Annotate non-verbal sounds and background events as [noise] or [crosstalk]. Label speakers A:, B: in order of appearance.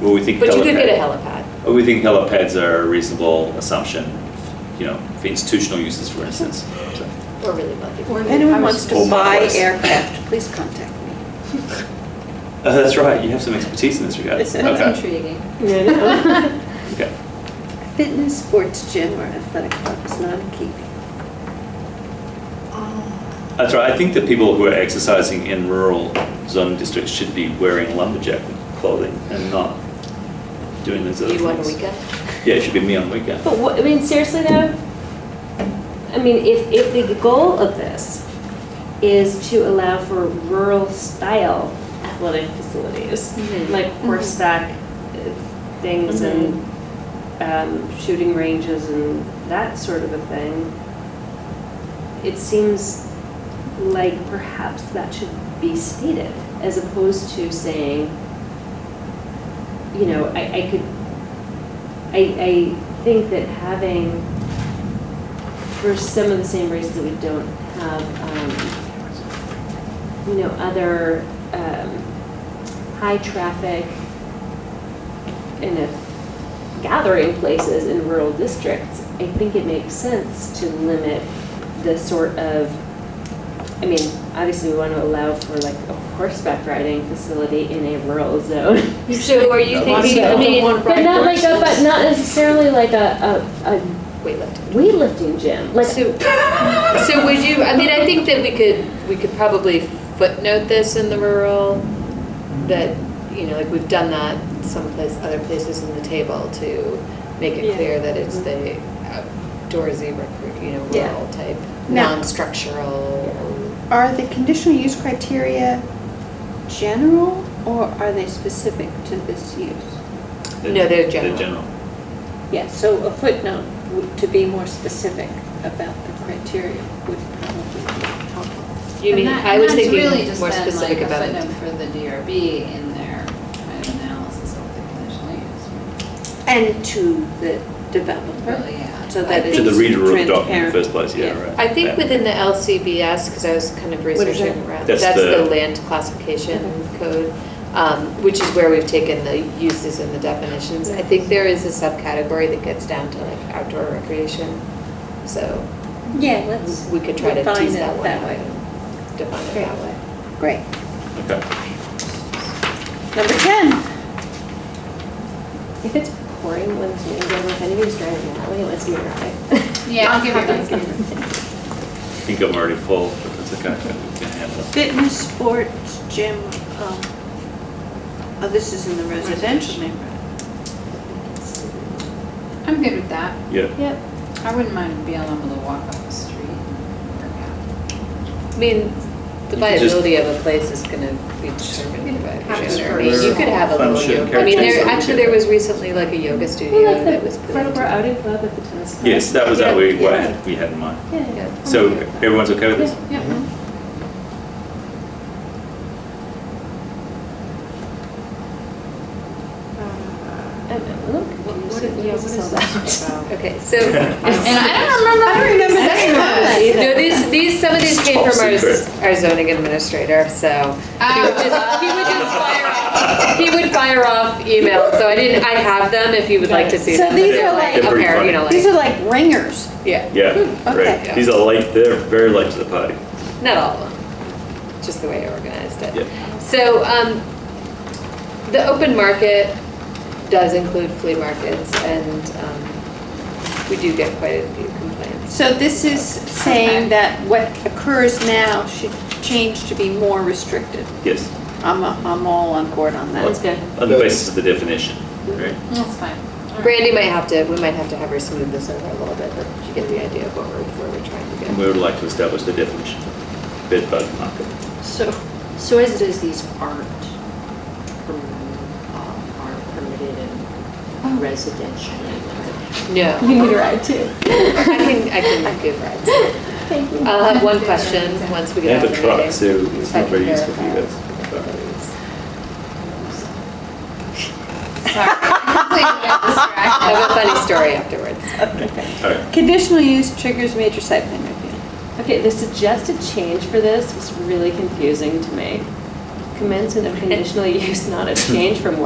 A: Well, we think
B: But you could
A: helipad-
B: get a helipad.
A: Well, We think helipads are a reasonable assumption, you know, for institutional uses, for
B: [laughs]
A: instance. So,
B: We're really lucky.
C: If anyone wants to
A: Or
C: buy
A: models.
C: aircraft, please contact me.
A: Oh, that's right, you have some expertise in this regard.
C: [laughs]
D: That's
A: Okay.
D: intriguing. [laughs]
A: Okay.
C: Fitness, sports gym, or athletic club is not in keeping.
A: That's right, I think that people who are exercising in rural zone districts should be wearing lumberjack clothing and not doing those other things.
B: You on a weekend? Oh,
A: Yeah, it should be me on weekend.
D: But what, I mean, seriously though, I mean, if, if the goal of this is to allow for rural style athletic facilities,
B: Mhm.
D: like horseback uh, things and um, shooting ranges and that sort of a thing, it seems like perhaps that should be stated as opposed to saying, you know, I, I could I, I think that having, for some of the same reasons that we don't have, um, you know, other, um, high traffic and if gathering places in rural districts, I think it makes sense to limit the sort of, I mean, obviously we want to allow for like a horseback riding facility in a rural zone.
B: [laughs] So are you
A: Yeah,
B: thinking
D: I
B: of
D: mean,
B: one
D: But
B: ride
D: not like a, but
B: horses?
D: not necessarily like a, a, a
B: Weightlifting.
D: weightlifting gym. Like,
B: So, so would you, I mean, I think that we could, we could probably footnote this in the rural, that, you know, like, we've done that someplace, other places in the table to make it
D: Yeah.
B: clear that it's the outdoorsy, recre- you know,
C: Yeah.
B: rural type,
C: Now-
B: non-structural.
C: Are the conditional use criteria general, or are they specific to this use?
B: No, they're general.
C: Yeah, so a footnote would- to be more specific about the criteria would probably be helpful.
B: You mean,
E: And that-
B: I was
E: and that's really
B: thinking
E: just
B: more
E: been, like,
B: specific
E: a
B: about it.
E: footnote For the DRB in their kind of analysis of the conditional use,
C: And to the developer.
E: really, yeah.
C: So
E: I
C: that
E: think
A: To the
C: it's
A: reader of the document in the
C: transparent.
A: first place, yeah,
C: Yeah.
A: right.
B: I think
A: Yeah.
B: within the LCBS, because I was kind of
C: is
B: researching
C: that? Mm-hmm.
B: around,
A: That's
B: that's
A: the-
B: the land classification code, um, which is where we've taken the uses and the definitions. I think there is a subcategory that gets down to like outdoor recreation, so
C: Yeah, let's.
B: we could try to
C: define
B: tease
C: it
B: that one
C: That
B: out
C: way.
B: and define it that way.
C: Great.
A: Okay.
C: Number 10.
D: if it's pouring when it's raining, like if anybody's driving an alley, it wants to
B: [laughs]
D: be right.
E: Yeah, I'll give you that.
A: I think I'm already full, but that's okay, we can handle it.
C: Fitness, sports, gym, um, oh, this is in the residential neighborhood.
E: I'm good with that.
A: Yeah,
D: Yep.
E: I wouldn't mind being able to walk up the street and work out.
B: I mean, the
A: You could just-
B: viability of a place is going to be determined by
E: Have it
B: the
E: for-
B: owner. You could have a
A: Fun
B: little
A: shared
B: yoga. I mean, there,
A: characteristics.
B: actually, there was recently like a yoga studio
C: [laughs]
D: Well,
B: that
D: like
B: was
D: the
B: put
D: Brattleboro
B: into.
D: Outing Club at the tennis club.
A: yes, that was what we, what
D: Yeah.
A: we had in mind.
D: Yeah.
B: Yeah.
A: So everyone's okay with this?
E: Yeah.
D: Uh, I'm a little confused.
B: yeah, what is
D: that? [laughs]
B: Okay,
A: [laughs]
B: so
E: And I don't remember.
C: I don't remember
E: I
C: saying that.
E: don't know.
B: No, these, these, some of these came from our,
A: Secret.
B: our zoning administrator, so. He would just, he would just fire off, he would fire off emails, so I didn't, I have them if you would like to see
C: So
B: them. but
C: these
B: they're
C: are like-
A: They're
B: A
A: pretty
B: pair, you know,
C: These
B: like,
C: are like ringers.
B: yeah,
A: Yeah,
C: okay.
A: right. These are late, they're very late to the party.
B: not all of them, just the way I organized it.
A: Yeah.
B: So, um, the open market does include flea markets and, um, we do get quite a few complaints.
C: So this is saying that what occurs now should change to be more restricted.
A: Yes,
C: I'm, I'm all on board on
D: That's
C: that.
D: good.
A: on the basis of the definition, right?
E: That's fine.
B: Brandy might have to, we might have to have her smooth this over a little bit, but you get the idea of what we're, where we're trying to get.
A: And we would like to establish the definition of bed bug market.
F: So, so as it is, these aren't, perm- um, aren't permitted
D: Oh.
F: in residential neighborhoods.
B: No,
D: [laughs] You need a ride too.
B: I can, I can give rides.
D: Thank you.
B: I'll have one question once we
A: They
B: get out of
A: have a
B: the
A: truck,
B: meeting.
A: so it's
B: I
A: not very
B: can
A: useful for you
B: verify.
A: guys.
E: Sorry. I'm completely distracted.
B: [laughs] I have a funny story afterwards.
A: All right,
C: Conditional use triggers major site plan review.
D: Okay, the suggested change for this was really confusing to me. Commencement of conditional use, not a change from what